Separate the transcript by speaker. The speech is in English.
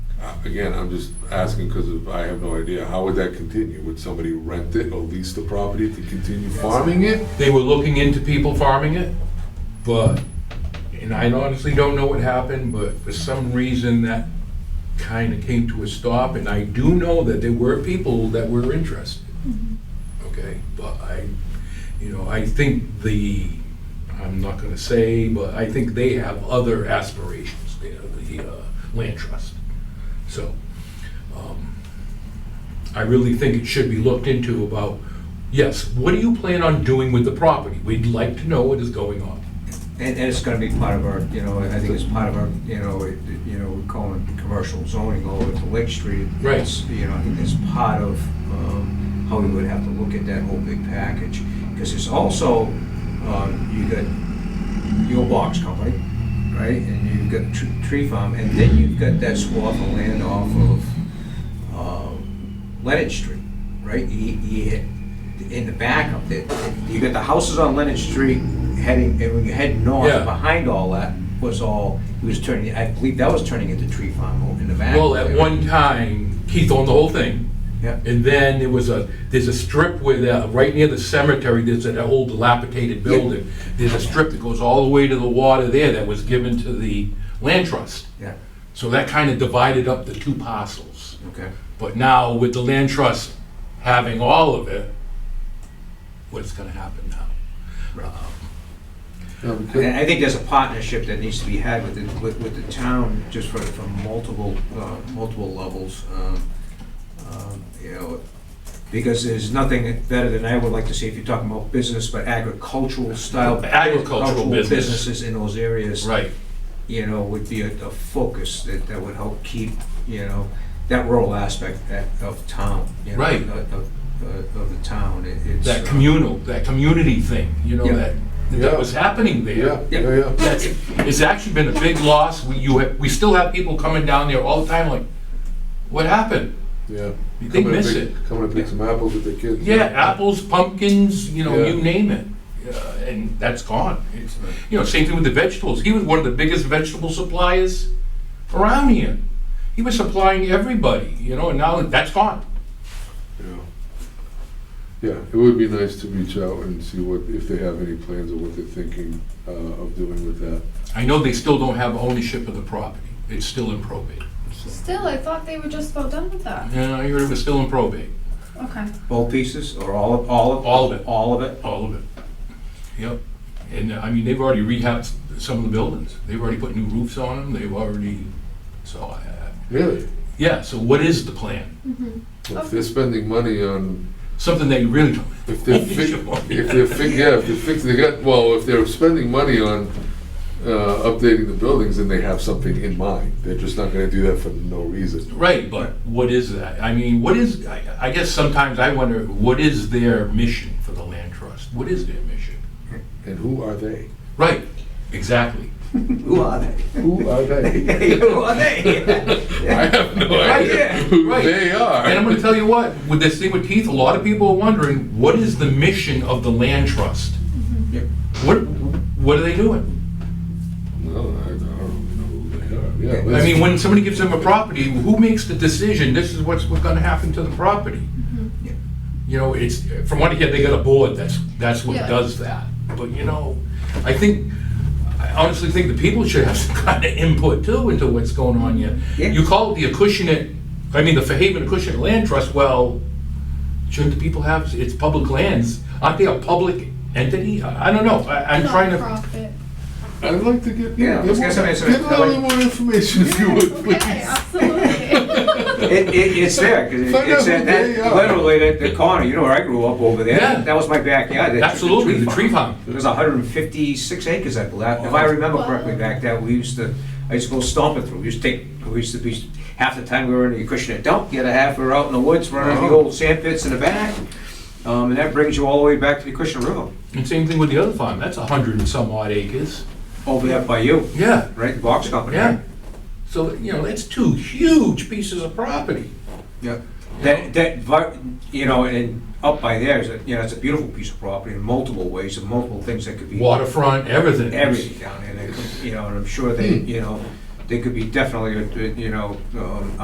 Speaker 1: Uh, again, I'm just asking because I have no idea, how would that continue? Would somebody rent it or lease the property to continue farming it?
Speaker 2: They were looking into people farming it, but, and I honestly don't know what happened, but for some reason that kind of came to a stop, and I do know that there were people that were interested. Okay, but I, you know, I think the, I'm not gonna say, but I think they have other aspirations, there, the uh, land trust. So, um, I really think it should be looked into about, yes, what do you plan on doing with the property? We'd like to know what is going on.
Speaker 3: And, and it's gonna be part of our, you know, I think it's part of our, you know, it- it- you know, we're calling it commercial zoning all over to Lake Street.
Speaker 2: Right.
Speaker 3: It's, You know, I think that's part of, um, how we would have to look at that whole big package. Because it's also, um, you got your box company, right, and you've got tr- tree farm, and then you've got that swath of land off of, um, Leonard Street, right? You, you, in the back of it, you got the houses on Leonard Street heading, and when you head
Speaker 2: Yeah.
Speaker 3: north, behind all that was all, it was turning, I believe that was turning into tree farm over in the back.
Speaker 2: Well, at one time, Keith owned the whole thing.
Speaker 3: Yeah.
Speaker 2: And then there was a, there's a strip where, the- right near the cemetery, there's an old dilapidated building. There's a strip that goes all the way to the water there that was given to the land trust.
Speaker 3: Yeah,
Speaker 2: So that kind of divided up the two parcels.
Speaker 3: okay.
Speaker 2: But now with the land trust having all of it, what's gonna happen now?
Speaker 1: Now,
Speaker 3: And
Speaker 1: because-
Speaker 3: I think there's a partnership that needs to be had with, the- with, with the town, just for, from multiple, uh, multiple levels, um, um, you know, because there's nothing better than I would like to see, if you're talking about business, but agricultural style.
Speaker 2: Agricultural business.
Speaker 3: Businesses in those areas.
Speaker 2: Right,
Speaker 3: you know, would be a, a focus that, that would help keep, you know, that rural aspect that, of town, you know,
Speaker 2: Right.
Speaker 3: Of, of- of the town, It- it's.
Speaker 2: that
Speaker 3: uh,
Speaker 2: communal, that community thing, you know,
Speaker 3: Yeah.
Speaker 2: that,
Speaker 1: Yeah.
Speaker 2: that was happening there.
Speaker 1: Yeah, yeah, yeah.
Speaker 2: That's, it's actually been a big loss. We, you have, we still have people coming down there all the time like, what happened?
Speaker 1: Yeah.
Speaker 2: They
Speaker 1: Coming to
Speaker 2: miss
Speaker 1: pick-
Speaker 2: it.
Speaker 1: Coming to pick some apples with their kids.
Speaker 2: Yeah, apples, pumpkins, you know,
Speaker 1: Yeah.
Speaker 2: you name it. Uh, and that's gone. It's, you know, same thing with the vegetables. He was one of the biggest vegetable suppliers around here. He was supplying everybody, you know, and now that's gone.
Speaker 1: Yeah. Yeah, it would be nice to reach out and see what, if they have any plans or what they're thinking uh, of doing with that.
Speaker 2: I know they still don't have ownership of the property. It's still in probate.
Speaker 4: Still, I thought they were just about done with that.
Speaker 2: Yeah, I heard it was still in probate,
Speaker 4: Okay.
Speaker 3: Both pieces, or all of, all of?
Speaker 2: All of it.
Speaker 3: All of it?
Speaker 2: all of it. Yep. And, uh, I mean, they've already rehabbed some of the buildings. They've already put new roofs on them. They've already, so, I-
Speaker 1: Really?
Speaker 2: yeah, so what is the plan?
Speaker 1: If they're spending money on
Speaker 2: Something they really don't
Speaker 1: If they're fi- if they're fi- yeah, if they're fixing, they got, well, if they're spending money on, uh, updating the buildings, then they have something in mind. They're just not gonna do that for no reason.
Speaker 2: Right, but what is that? I mean, what is, I I guess sometimes I wonder, what is their mission for the land trust? What is their mission?
Speaker 1: And who are they?
Speaker 2: Right, exactly.
Speaker 3: Who are they?
Speaker 1: Who are they?
Speaker 3: Who are they?
Speaker 1: I have no
Speaker 2: Right,
Speaker 1: idea
Speaker 2: yeah,
Speaker 1: who
Speaker 2: right.
Speaker 1: they are.
Speaker 2: And I'm gonna tell you what, with this thing with Keith, a lot of people are wondering, what is the mission of the land trust?
Speaker 3: Yep.
Speaker 2: What, what are they doing?
Speaker 1: No, I don't know who they are. Yeah,
Speaker 2: I mean, when somebody gives them a property, who makes the decision, this is what's, what's gonna happen to the property?
Speaker 3: Yeah.
Speaker 2: You know, it's, from what I hear, they got a board that's, that's what
Speaker 4: Yeah.
Speaker 2: does that. But, you know, I think, I honestly think the people should have some kind of input too into what's going on here.
Speaker 3: Yeah.
Speaker 2: You call it the Acushnet, I mean, the Fairhaven Acushnet Land Trust, well, shouldn't the people have, it's public lands, aren't they a public entity? I I don't know, I, I'm trying to,
Speaker 4: Nonprofit.
Speaker 1: I'd like to get,
Speaker 3: Yeah,
Speaker 1: get more,
Speaker 3: let's get
Speaker 1: get
Speaker 3: some
Speaker 1: a
Speaker 3: information.
Speaker 1: little more information if you would,
Speaker 4: Okay,
Speaker 1: please.
Speaker 4: absolutely.
Speaker 3: It, it, it's there, 'cause it-
Speaker 1: Find
Speaker 3: it's
Speaker 1: out
Speaker 3: at
Speaker 1: who
Speaker 3: that,
Speaker 1: they are.
Speaker 3: literally at the corner, you know where I grew up over there?
Speaker 2: Yeah.
Speaker 3: That was my backyard. that-
Speaker 2: Absolutely, the tree farm.
Speaker 3: There's hundred and fifty-six acres, I believe, if I remember correctly back then, we used to, I used to go stomping through, we used to take, we used to be, half the time we were in the Acushnet dump, the other half we were out in the woods, running the
Speaker 1: Oh.
Speaker 3: old sand pits in the back. Um, and that brings you all the way back to the Acushnet River,
Speaker 2: and same thing with the other farm, that's a hundred and some odd acres.
Speaker 3: over there by you,
Speaker 2: Yeah,
Speaker 3: right, the box company. right?
Speaker 2: yeah. So, you know, it's two huge pieces of property.
Speaker 3: Yeah, that, that, vi- you know, and up by there is, a you know, it's a beautiful piece of property in multiple ways, and multiple things that could be.
Speaker 2: Waterfront, everything.
Speaker 3: Everything down there, that could- you know, and I'm sure they, you know, they could be definitely, uh, you know, um,